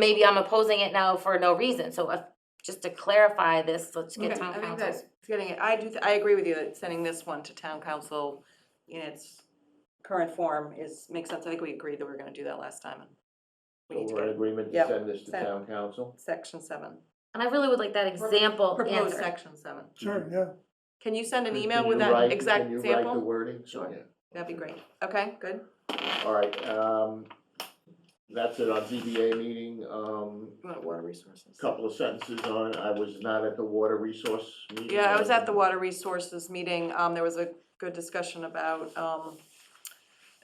maybe I'm opposing it now for no reason, so if, just to clarify this, let's get Okay, town I think council. that's getting it. I do, th- I agree with you that sending this one to town council in its current form is, makes sense. I think we agreed that we were gonna do that last time. and We So need to we're in get agreement to Yep. send this to Send. town council? section seven, And I really would like that example proposed answer. section seven. Sure, yeah. Can you send an Can- email can with you that write- exact Can you write the example? wording? Sure. Yeah. That'd be great. Okay, good. All right, um, that's it on ZBA meeting, um, You want water resources? couple of sentences on, it. I was not at the water resource meeting. Yeah, I was at the but- Water Resources meeting, um, there was a good discussion about, um,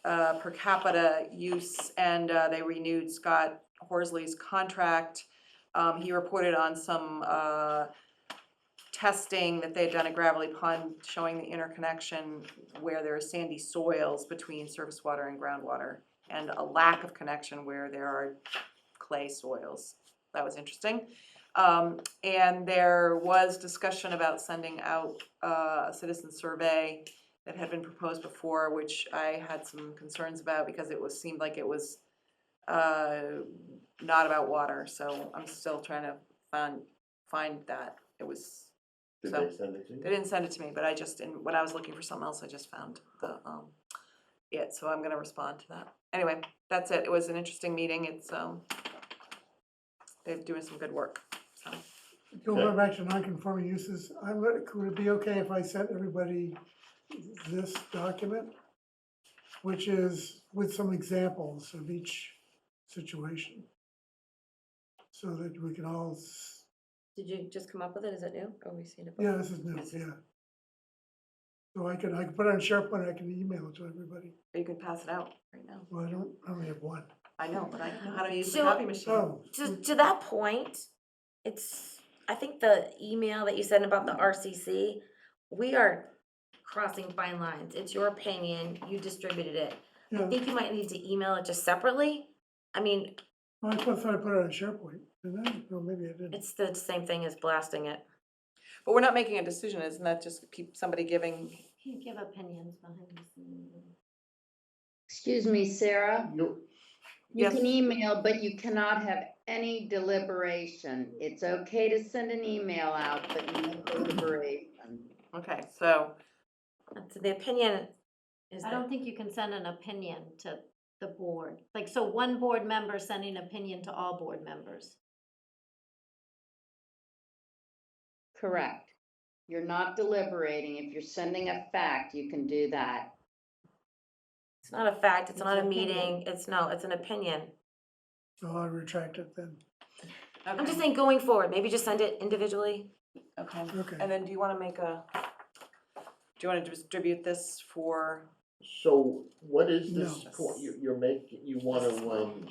uh, per capita use, and, uh, they renewed Scott Horsley's contract. Um, he reported on some, uh, testing that they had done at Gravelly Pond, showing the interconnection where there are sandy soils between surface water and groundwater, and a lack of connection where there are clay soils. That was interesting. Um, and there was discussion about sending out uh, a citizen survey that had been proposed before, which I had some concerns about because it was, seemed like it was uh, not about water, so I'm still trying to find, find that. It was, Did they send it to you? they didn't send it to me, but I just, in- when I was looking for something else, I just found the, um, it, so I'm gonna respond to that. Anyway, that's it. It was an interesting meeting. It's, um, they're doing some good work, so. Go right back to non-conforming uses, I would, would it be okay if I sent everybody this document? Which is with some examples of each situation. So that we can all, s- Did you just come up with it? Is it new? Or we seen it yeah, before? this is new, yeah. So I could, I could put it on SharePoint, I can email it to everybody, Or you can pass it out right now. well, I don't, I only have one. Oh, I know, but I know how to use the So- copy machine. So, To, to that point, it's, I think the email that you sent about the RCC, we are crossing fine lines, it's your opinion, you distributed it. I yeah, think you might need to email it just separately, I mean, Well, I thought I put it on SharePoint, didn't I? Or maybe I didn't. it's the same thing as blasting it. But we're not making a decision, isn't that just keep somebody giving? You give opinions behind the scenes. Excuse me, Sarah, You- you Yes. can email, but you cannot have any deliberation. It's okay to send an email out, but no deliberation. Okay, so, So the opinion is I don't think you can send an opinion to the board, like, so one board member sending opinion to all board members. Correct. You're not deliberating. If you're sending a fact, you can do that. It's not a fact, it's It's not a an meeting, it's no, it's an opinion. So Oh, I retract it then, I'm just okay, saying going forward, maybe just send it individually. okay. okay. And then do you wanna make a, do you wanna distribute this for, So what is this No. point, you, you're making, you wanna, um,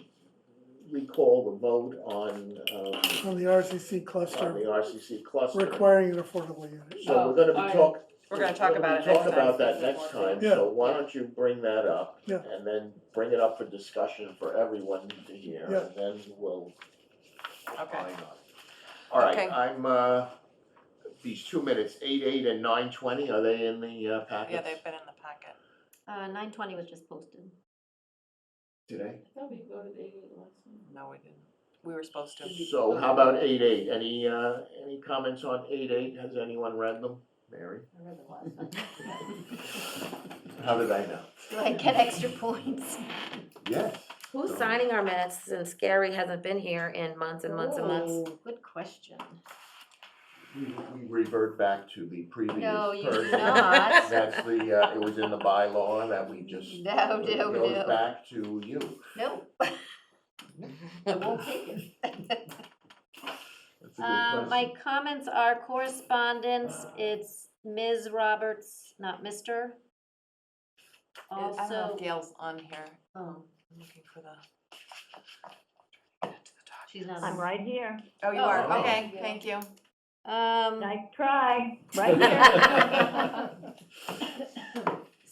recall the vote on, um, On the RCC on the cluster, RCC cluster? requiring an affordable unit. So we're Oh, gonna be talk, we're gonna talk We're gonna about it next time? Talk about that next time, Yeah. so why don't you bring that up? Yeah. And then bring it up for discussion for everyone to hear, Yeah. and then we'll Okay. opine on it. All right, Okay. I'm, uh, these two minutes, eight, eight and nine twenty, are they in the uh, Yeah, packets they've been in the packet. Uh, nine twenty was just posted. today? No, we didn't. We were supposed to. So how about eight, eight, any, uh, any comments on eight, eight, has anyone read them? Mary? How did I know? Do I get extra points? Yes. Who's signing our minutes since Gary hasn't been here in months and months and months? Ooh, Good question. We we revert back to the previous No, you do person. not. That's the, uh, it was in the bylaw that we just. No, it no, Goes no. back to you. No. I won't take it. That's a good Um, my question. comments are correspondence, it's Ms. Roberts, not Mr. I don't know Also, if Gail's on here. oh, I'm looking for the. she's not. I'm right here. Oh, you Oh, are, okay. okay, thank you. Um. Nice try, right here.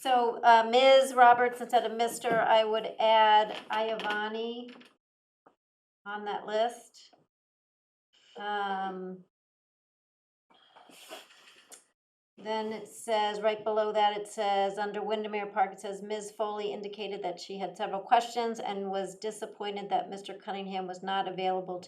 So uh, Ms. Roberts instead of Mr., I would add Iavani on that list. Um, Then it says, right below that, it says, under Windermere Park, it says, Ms. Foley indicated that she had several questions and was disappointed that Mr. Cunningham was not available to